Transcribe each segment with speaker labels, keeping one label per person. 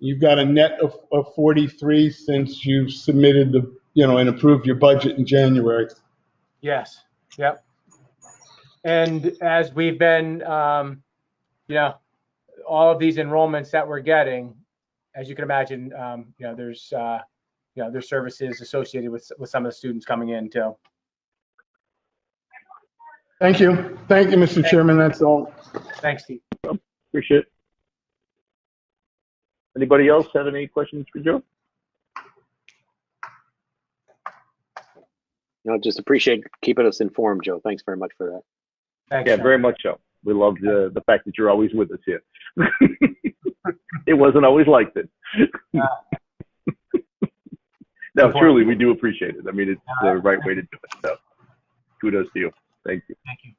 Speaker 1: You've got a net of, of 43 since you submitted the, you know, and approved your budget in January.
Speaker 2: Yes, yep. And as we've been, um, you know, all of these enrollments that we're getting, as you can imagine, um, you know, there's, uh, you know, there's services associated with, with some of the students coming in too.
Speaker 1: Thank you. Thank you, Mr. Chairman. That's all.
Speaker 2: Thanks, Steve.
Speaker 3: Appreciate it. Anybody else have any questions for Joe?
Speaker 4: No, just appreciate keeping us informed, Joe. Thanks very much for that.
Speaker 2: Thanks.
Speaker 3: Yeah,
Speaker 2: Sean.
Speaker 3: very much so. We love the, the fact that you're always with us here. it wasn't always like that. no, truly, we do appreciate it. I mean, it's the right way to do it. So, kudos to you. Thank you.
Speaker 2: Thank you.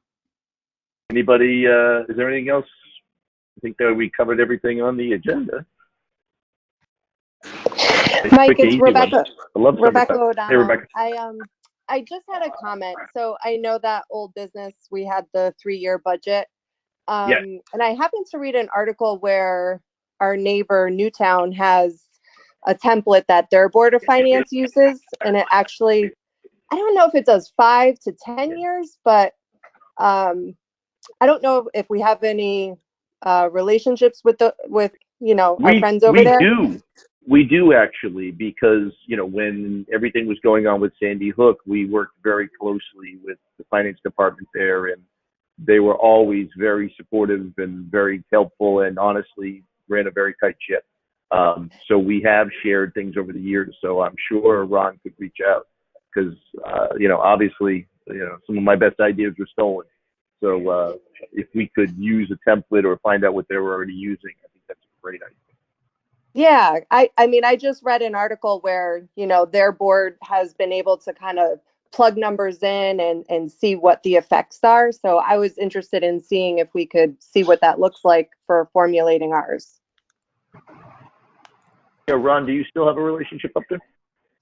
Speaker 3: Anybody, uh, is there anything else? I think that we covered everything on the agenda.
Speaker 5: Mike,
Speaker 3: Quick and
Speaker 5: it's
Speaker 3: easy one.
Speaker 5: Rebecca.
Speaker 3: I love
Speaker 5: Rebecca
Speaker 3: summertime.
Speaker 5: O'Donnell.
Speaker 3: Hey, Rebecca.
Speaker 5: I um, I just had a comment. So I know that old business we had the three-year budget, um,
Speaker 3: Yes.
Speaker 5: and I happened to read an article where our neighbor Newtown has a template that their board of finance uses, and it actually, I don't know if it does five to ten years, but um, I don't know if we have any uh, relationships with the with you know our friends over
Speaker 3: we
Speaker 5: there.
Speaker 3: do. We do actually, because you know when everything was going on with Sandy Hook, we worked very closely with the finance department there, and they were always very supportive and very helpful, and honestly ran a very tight ship. Um, so we have shared things over the years. So I'm sure Ron could reach out because uh, you know obviously you know some of my best ideas were stolen. So uh, if we could use a template or find out what they were already using, I think that's a great idea.
Speaker 5: Yeah, I I mean I just read an article where, you know, their board has been able to kind of plug numbers in and and see what the effects are. So I was interested in seeing if we could see what that looks like for formulating ours.
Speaker 3: Yeah, Ron, do you still have a relationship up there?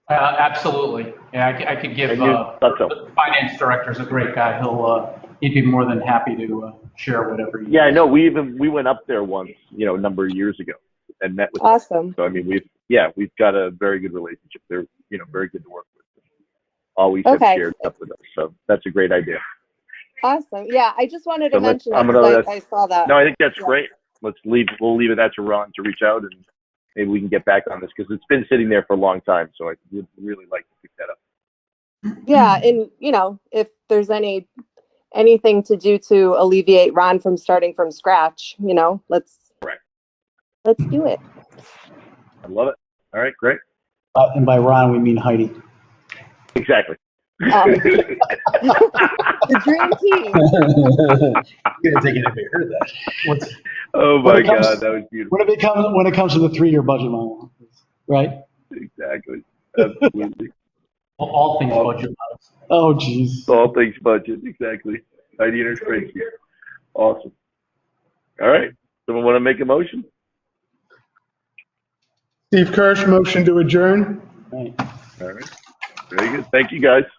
Speaker 6: Uh, Absolutely. Yeah, I c- I could give
Speaker 3: And you-
Speaker 6: uh,
Speaker 3: thought so.
Speaker 6: the finance director's a great guy. He'll, uh, he'd be more than happy to uh, share whatever. you-
Speaker 3: Yeah, I know. We even we went up there once, you know, a number of years ago, and met with. Them.
Speaker 5: Awesome.
Speaker 3: So I mean, we've yeah, we've got a very good relationship. They're you know very good to work with. Always
Speaker 5: Okay.
Speaker 3: have shared stuff with us, so that's a great idea.
Speaker 5: Awesome. Yeah, I just wanted to
Speaker 3: So let's-
Speaker 5: mention
Speaker 3: I'm
Speaker 5: that
Speaker 3: gonna
Speaker 5: 'cause
Speaker 3: let-
Speaker 5: I, I saw that.
Speaker 3: No, I think that's
Speaker 5: Yeah.
Speaker 3: great. Let's leave. We'll leave it at to Ron to reach out, and maybe we can get back on this because it's been sitting there for a long time. So I would really like to pick that up.
Speaker 5: Yeah, and you know, if there's any anything to do to alleviate Ron from starting from scratch, you know, let's
Speaker 3: Correct.
Speaker 5: let's do it.
Speaker 3: I love it. All right, great.
Speaker 7: Uh, And by Ron, we mean Heidi.
Speaker 3: Exactly.
Speaker 5: Um, the dream team.
Speaker 7: You're gonna take it if you heard that. What's-
Speaker 3: oh
Speaker 7: When
Speaker 3: my
Speaker 7: it comes-
Speaker 3: God, that was beautiful.
Speaker 7: When it comes, when it comes to the three-year budget, Mylon, right?
Speaker 3: Exactly. Absolutely.
Speaker 6: All- All things budget.
Speaker 7: Oh, jeez.
Speaker 3: All things budget, exactly. Heidi and her crazy. Awesome. All right. Someone want to make a motion?
Speaker 1: Steve Kirsch, motion to adjourn.
Speaker 7: Right.
Speaker 3: All right. Very good. Thank you, guys.